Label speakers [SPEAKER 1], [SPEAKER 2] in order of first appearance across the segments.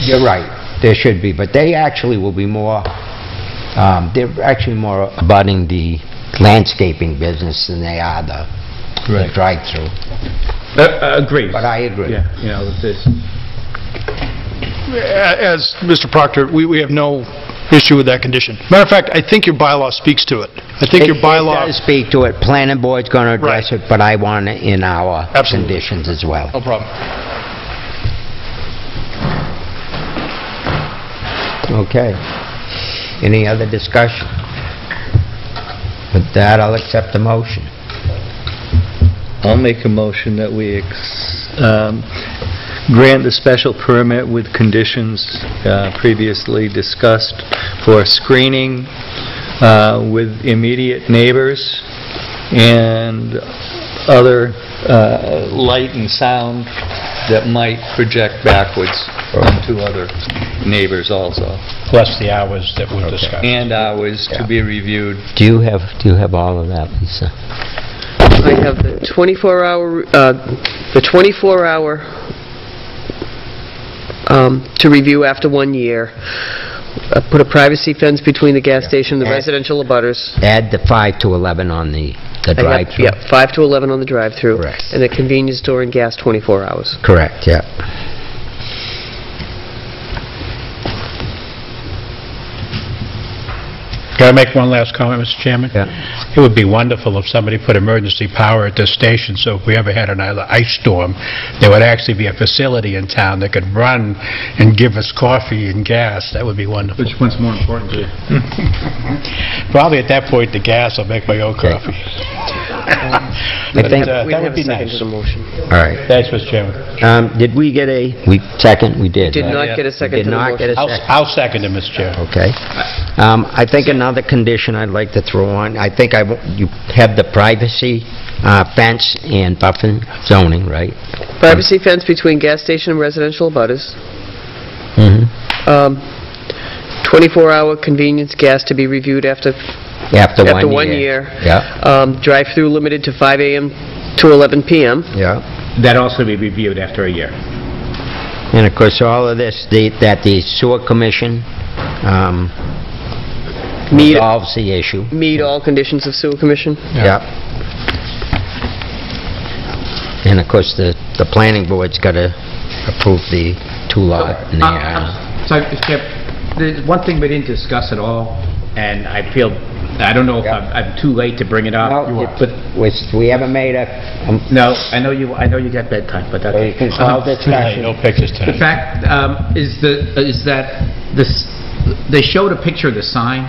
[SPEAKER 1] you're right, there should be, but they actually will be more, um, they're actually more abutting the landscaping business than they are the the
[SPEAKER 2] Right.
[SPEAKER 1] drive-through.
[SPEAKER 2] Uh, Agreed.
[SPEAKER 1] But I agree.
[SPEAKER 2] Yeah, you know, with this.
[SPEAKER 3] A- Uh, As Mr. Proctor, we, we have no issue with that condition. Matter of fact, I think your bylaw speaks to it. I think your
[SPEAKER 1] It-
[SPEAKER 3] bylaw...
[SPEAKER 1] It does speak to it, planning board's going to address
[SPEAKER 3] Right.
[SPEAKER 1] it, but I want it in our
[SPEAKER 3] Absolutely.
[SPEAKER 1] conditions as well.
[SPEAKER 3] No problem. Oh.
[SPEAKER 1] Okay. Any other discussion? With that, I'll accept the motion.
[SPEAKER 2] I'll make a motion that we ex- um, grant the special permit with conditions uh, previously discussed for screening uh, with immediate neighbors and other uh, light and sound that might project backwards onto other neighbors also,
[SPEAKER 4] plus the hours that we've discussed.
[SPEAKER 2] and hours to be reviewed.
[SPEAKER 1] Do you have, do you have all of that, Lisa?
[SPEAKER 5] I have the 24-hour, the 24-hour um, to review after one year, Uh, put a privacy fence between the gas station and the
[SPEAKER 1] Yeah.
[SPEAKER 5] residential abutters.
[SPEAKER 1] Add the 5 to 11 on the the
[SPEAKER 5] I have-
[SPEAKER 1] drive-through?
[SPEAKER 5] Yeah, 5 to 11 on the drive-through.
[SPEAKER 1] Correct.
[SPEAKER 5] And the convenience store and gas 24 hours.
[SPEAKER 4] Uh,
[SPEAKER 1] Correct, yeah.
[SPEAKER 4] Can I make one last comment, Mr. Chairman? It would be wonderful if somebody put emergency power at this station, so if we ever had an i- ice storm, there would actually be a facility in town that could run and give us coffee and gas. That would be wonderful.
[SPEAKER 2] Which one's more important to you?
[SPEAKER 4] Probably at that point, the gas will make my own coffee.
[SPEAKER 1] I think,
[SPEAKER 4] But, uh,
[SPEAKER 1] all
[SPEAKER 5] We didn't
[SPEAKER 4] That
[SPEAKER 5] have
[SPEAKER 4] would
[SPEAKER 5] a
[SPEAKER 4] be
[SPEAKER 5] second
[SPEAKER 4] nice.
[SPEAKER 5] to the motion.
[SPEAKER 1] right.
[SPEAKER 4] Thanks, Mr. Chairman.
[SPEAKER 1] Um, Did we get a, we, second, we did.
[SPEAKER 5] Did
[SPEAKER 1] right?
[SPEAKER 5] not get a second
[SPEAKER 1] Did
[SPEAKER 5] to the
[SPEAKER 1] not get a
[SPEAKER 5] motion.
[SPEAKER 4] I'll
[SPEAKER 1] second.
[SPEAKER 4] I'll second it, Mr. Chairman.
[SPEAKER 1] Okay. Um, I think another condition I'd like to throw on, I think I, w- you have the privacy uh, fence and buffer zoning, right?
[SPEAKER 5] Privacy fence between gas station and residential abutters.
[SPEAKER 1] Mhm.
[SPEAKER 5] Um, 24-hour convenience gas to be reviewed after
[SPEAKER 1] After one year.
[SPEAKER 5] After one year.
[SPEAKER 1] Yeah,
[SPEAKER 5] Um, Drive-through limited to 5 AM to 11 PM.
[SPEAKER 1] yeah.
[SPEAKER 6] That also be reviewed after a year.
[SPEAKER 1] And of course, all of this, the- that the sewer commission um,
[SPEAKER 5] Meet-
[SPEAKER 1] resolves the issue.
[SPEAKER 5] Meet all conditions of sewer commission.
[SPEAKER 1] Yep. And of course, the, the planning board's got to approve the two-lot and the... uh,
[SPEAKER 6] So, Mr. Chair, there's one thing we didn't discuss at all, and I feel, I don't know if I'm I'm too late to bring it up.
[SPEAKER 1] No,
[SPEAKER 6] But,
[SPEAKER 1] it's- we haven't made a, um,
[SPEAKER 6] no, I know you, I know you got bedtime, but that's...
[SPEAKER 1] Well, you can call this
[SPEAKER 4] Hey, Uh, No pictures
[SPEAKER 6] The
[SPEAKER 4] tonight.
[SPEAKER 6] fact um, is the, is that this, they showed a picture of the sign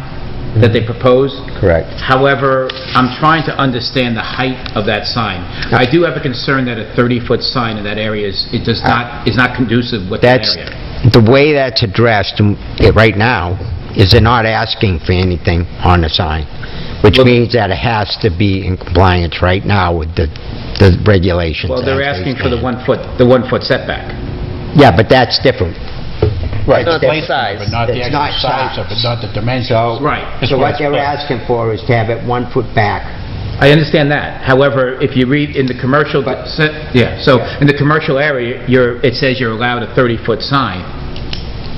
[SPEAKER 6] that they proposed.
[SPEAKER 1] Correct.
[SPEAKER 6] However, I'm trying to understand the height of that sign. I do have a concern that a 30-foot sign in that area is, it does not, is not conducive with that
[SPEAKER 1] That's,
[SPEAKER 6] area.
[SPEAKER 1] the way that's addressed mm, it- right now is they're not asking for anything on the sign, which
[SPEAKER 6] Well-
[SPEAKER 1] means that it has to be in compliance right now with the, the regulations.
[SPEAKER 6] Well, they're
[SPEAKER 1] as they
[SPEAKER 6] asking for the
[SPEAKER 1] stand.
[SPEAKER 6] one-foot, the one-foot setback.
[SPEAKER 1] Yeah, but that's different.
[SPEAKER 4] Right.
[SPEAKER 1] It's
[SPEAKER 4] the
[SPEAKER 1] different.
[SPEAKER 4] placement of it, Not the
[SPEAKER 1] It's
[SPEAKER 4] actual
[SPEAKER 1] not
[SPEAKER 4] size of
[SPEAKER 1] size.
[SPEAKER 4] it, not the dimensions.
[SPEAKER 6] Right.
[SPEAKER 4] That's
[SPEAKER 1] So what
[SPEAKER 4] what it's
[SPEAKER 1] they're
[SPEAKER 4] about.
[SPEAKER 1] asking for is to have it one foot back.
[SPEAKER 6] I understand that. However, if you read in the commercial, yeah, so in the commercial area, you're, it says you're allowed a 30-foot sign,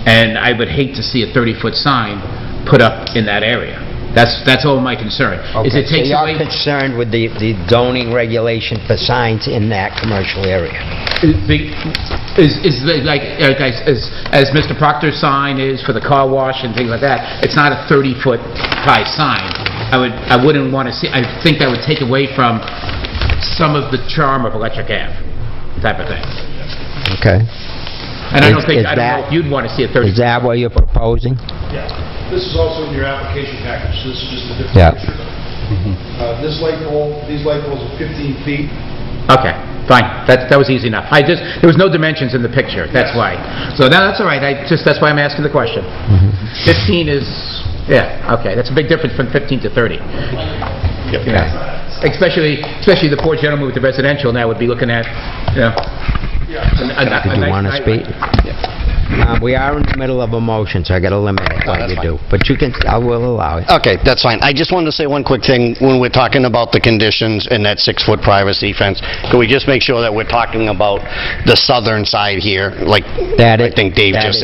[SPEAKER 6] and I would hate to see a 30-foot sign put up in that area. That's, that's all my concern.
[SPEAKER 1] Okay,
[SPEAKER 6] Is it takes
[SPEAKER 1] So
[SPEAKER 6] away,
[SPEAKER 1] you're concerned with the the zoning regulation for signs in that commercial area?
[SPEAKER 6] is, is the- like, like I s- as, as Mr. Proctor's sign is for the car wash and things like that, it's not a 30-foot high sign. I would, I wouldn't want to see, I think that would take away from some of the charm of Electric Ave type of thing.
[SPEAKER 1] Okay.
[SPEAKER 6] And I
[SPEAKER 1] Is-
[SPEAKER 6] don't
[SPEAKER 1] is
[SPEAKER 6] think, I don't know
[SPEAKER 1] that-
[SPEAKER 6] if you'd want to see a
[SPEAKER 1] Is
[SPEAKER 6] 30...
[SPEAKER 1] that what you're proposing?
[SPEAKER 7] Yeah, this is also in your application package, so this is just a
[SPEAKER 1] Yeah.
[SPEAKER 7] different picture. Uh, This light pole, these light poles are 15 feet.
[SPEAKER 6] Okay, fine, that, that was easy enough. I just, there was no dimensions in the picture, that's why. So now, that's all right, I just, that's why I'm asking the question. 15 is, yeah, okay, that's a big difference from 15 to 30. Yeah. Especially, especially the poor gentleman with the residential now would be looking at, you know... a- a- a
[SPEAKER 1] Did you
[SPEAKER 6] nice-
[SPEAKER 1] want to
[SPEAKER 6] nice-
[SPEAKER 1] speak? Um, We are in the middle of a motion, so I got to limit what you do. But you can, I will allow it.
[SPEAKER 8] Okay, that's fine. I just wanted to say one quick thing. When we're talking about the conditions and that six-foot privacy fence, can we just make sure that we're talking about the southern side here, like
[SPEAKER 1] That
[SPEAKER 8] I
[SPEAKER 1] is-
[SPEAKER 8] think Dave
[SPEAKER 1] that
[SPEAKER 8] just
[SPEAKER 1] is-
[SPEAKER 8] said?